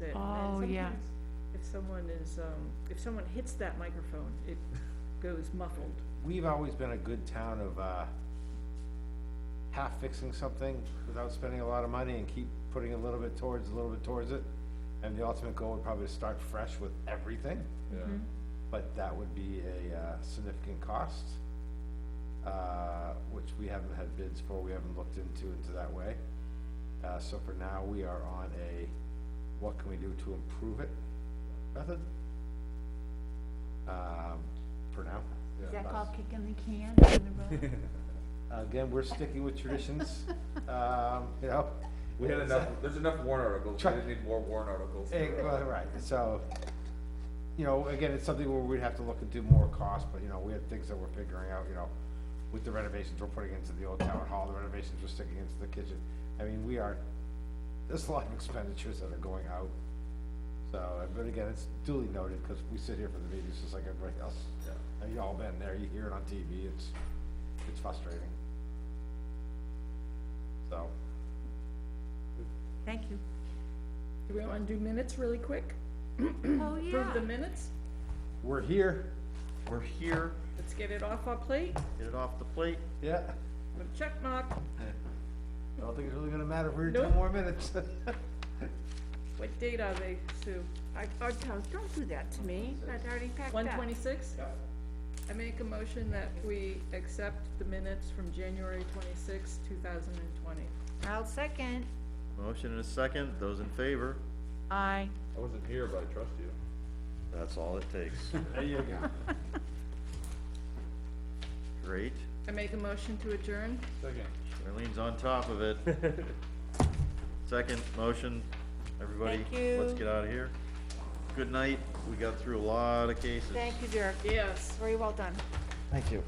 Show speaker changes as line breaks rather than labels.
it. And
Oh, yeah.
sometimes If someone is, um, if someone hits that microphone, it goes muffled.
We've always been a good town of, uh, half fixing something without spending a lot of money and keep putting a little bit towards, a little bit towards it. And the ultimate goal would probably start fresh with everything,
yeah.
but that would be a, uh, significant cost. Uh, which we haven't had bids for, we haven't looked into, into that way. Uh, so for now, we are on a, what can we do to improve it method? Um, for now.
Yeah.
Is that
Us.
called kicking the can down the road?
Again, we're sticking with traditions, um, you know.
We had enough, there's enough warrant articles, we
Try-
didn't need more warrant articles.
Eh, well, Right, so, you know, again, it's something where we'd have to look and do more cost, but, you know, we had things that we're figuring out, you know, with the renovations we're putting into the old town hall, the renovations we're sticking into the kitchen. I mean, we are, there's a lot of expenditures that are going out. So, but again, it's duly noted, because we sit here for the meetings just like everybody else.
Yeah.
And you all been there, you hear it on TV, it's, it's frustrating. So,
Thank you.
Do we want to do minutes really quick?
Oh,
Approve the
yeah.
minutes?
we're here,
We're here,
Let's get it off our plate.
get it off the plate.
yeah,
Put a check mark.
I don't think it's really gonna matter if we're here
Nope.
ten more minutes.
What date are they, Sue?
I, oh, don't- don't do that to me. That's already packed
One
up.
twenty-six?
Yep.
I make a motion that we accept the minutes from January twenty-sixth, two thousand and twenty.
I'll second.
Motion and a second, those in favor,
Aye.
I wasn't here, but I trust you.
that's all it takes.
There you go.
Great,
I make a motion to adjourn?
Second.
Charlene's on top of it. Second motion, everybody,
Thank
let's
you.
get out of here. Good night, we got through a lot of cases.
Thank you, Dirk.
Yes.
Very well done.
Thank you.